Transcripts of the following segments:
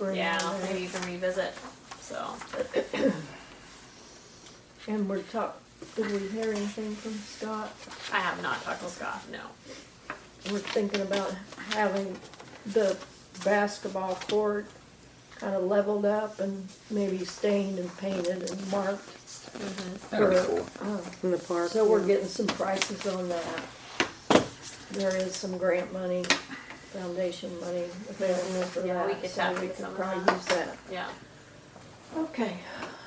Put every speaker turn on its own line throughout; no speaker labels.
We're
Yeah,
now there.
maybe you can revisit, so.
And we're talk, did we hear anything from Scott?
I have not talked to Scott, no.
We're thinking about having the basketball court kind of leveled up and maybe stained and painted and marked.
Mm-hmm.
That'd be
for,
cool.
uh,
in the park.
So we're getting some prices on that. There is some grant money, foundation money available for
Yeah, we
that,
could
so
tap
we
into
could
some of
probably
that.
use that.
Yeah,
Okay,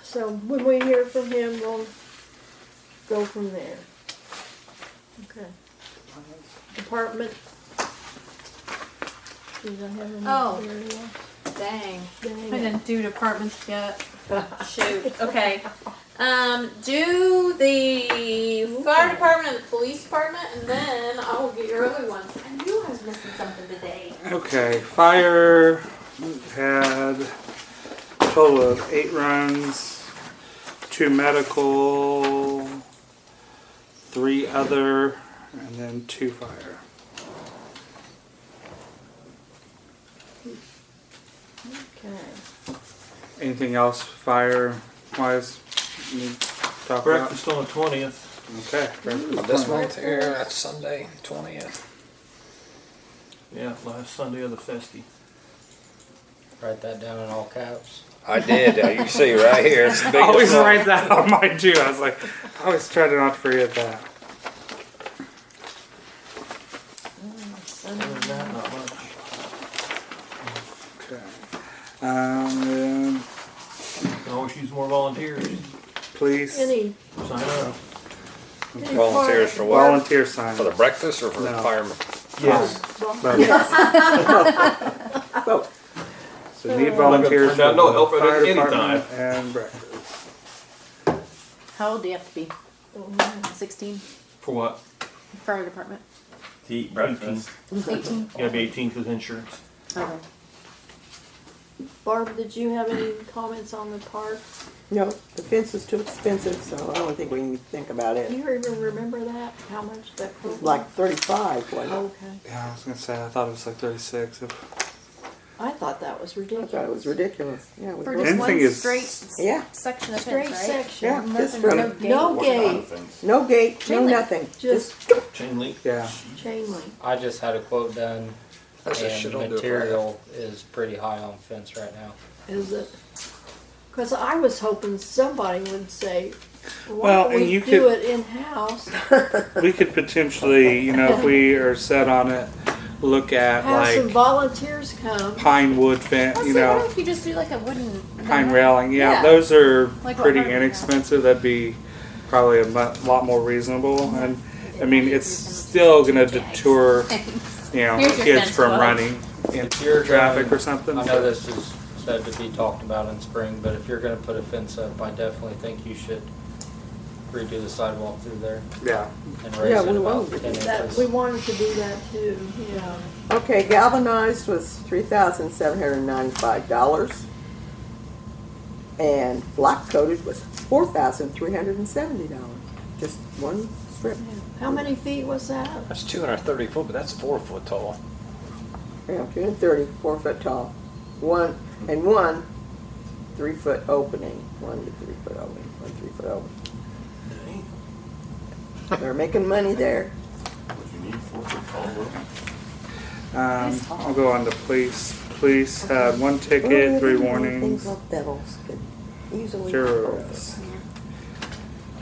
so when we hear from him, we'll go from there. Okay. Department. Did I have any?
Oh.
area?
dang.
Dang
I
it.
didn't do departments yet.
Shoot. Okay. Um, do the fire department and the police department, and then I will get your other ones. I knew I was missing something today.
Okay, fire had a total of eight runs, two medical, three other, and then two fire.
Okay.
Anything else fire wise? Talk about?
Breakfast on the twentieth.
Okay. breakfast
This
plan.
month here, that's Sunday, twentieth.
Yeah, last Sunday of the festy.
Write that down in all caps.
I did, uh, you can see right here, it's the
I always
biggest one.
write that on mine too. I was like, I always try to not forget that.
Sunday.
Other than that, not much.
Okay. Um, then
Can always use more volunteers.
police,
Any,
Sign up.
any part,
Volunteers for what?
volunteer sign.
For the breakfast or for
No.
firemen?
Yes.
But- So need
Turn
volunteers for
down no
the
help at
fire
any
department and breakfast.
How old do you have to be? Sixteen
For what?
fire department.
To eat breakfast.
Eighteen.
You gotta be eighteen because insurance.
Okay.
Barb, did you have any comments on the park?
No, the fence is too expensive, so I don't think we can think about
Do
it.
you even remember that, how much that
It's
cost?
like thirty-five, wasn't
Okay,
Yeah, I was gonna say I thought it was like thirty six.
I thought that was
it? I thought it
ridiculous.
was ridiculous. Yeah, we
For
looked-
just
Fencing
one
is-
straight s-
yeah,
section of
Straight
fence, right?
yeah,
section,
just
Nothing, no
from,
gate.
no
What kind of
gate,
things?
no gate, no
Chain link.
nothing,
just
just,
Chain link.
Yeah.
chain link.
I just had a quote done,
That's the
and
shit I'll do if I had-
material is pretty high on fence right now.
Is it? Because I was hoping somebody would say,
Well,
"Why don't
and
we
you
do
could-
it in house?
We could potentially, you know, if we are set on it, look at
Have some
like
volunteers come."
pine wood fence,
Let's
you
see, what
know,
if you just do like a wooden?
pine railing. Yeah,
Yeah.
those are
Like what
pretty
Harvey has.
inexpensive. That'd be probably a mu- lot more reasonable. And I mean, it's still gonna deter, you know,
Here's your
kids
fence,
from
Will.
running into
If you're
traffic
going-
or something.
I know this is said to be talked about in spring, but if you're going to put a fence up, I definitely think you should redo the sidewalk through there
Yeah.
and raise
Yeah,
it
we
about
will.
ten
That we
inches.
wanted to do that too. Yeah.
okay, galvanized was three thousand seven hundred and ninety-five dollars. And black coated was four thousand three hundred and seventy dollars, just one strip,
How many feet was that?
that's two hundred and thirty foot, but that's four foot tall.
yeah, two and thirty, four foot tall. One, and one, three foot opening, one to three foot opening, one three foot opening.
Dang.
They're making money there.
Would you need four foot tall rope?
Um, I'll go on to police. Police had one ticket, three warnings,
devils could easily.
zero arrests.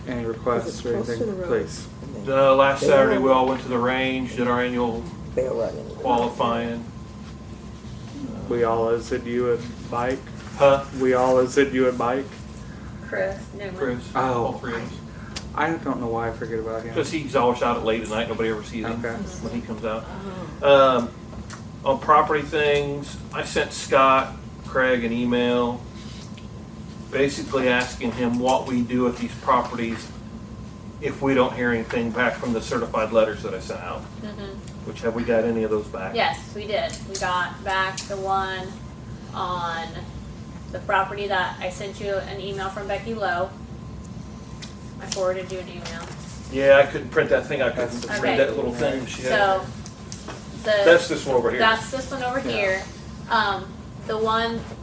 Any requests
Is it
or
close to
anything,
the road?
please?
The last Saturday, we all went to the range, did our annual
They'll run into it.
qualifying.
We all as it you and Mike.
Huh?
We all as it you and Mike.
Chris Newman.
Chris.
Oh.
All three of us.
I don't know why I forget about him.
Because he's always out at late at night. Nobody ever sees him
Okay.
when he comes out.
Uh-huh.
Um, on property things, I sent Scott Craig an email basically asking him what we do with these properties if we don't hear anything back from the certified letters that I sent out.
Mm-hmm.
Which have we got any of those back?
Yes, we did. We got back the one on the property that I sent you an email from Becky Lowe. I forwarded you an email.
Yeah, I couldn't print that thing. I couldn't
That's-
read that little thing. She had.
So the
That's this one over here.
that's this one over here. Um, the one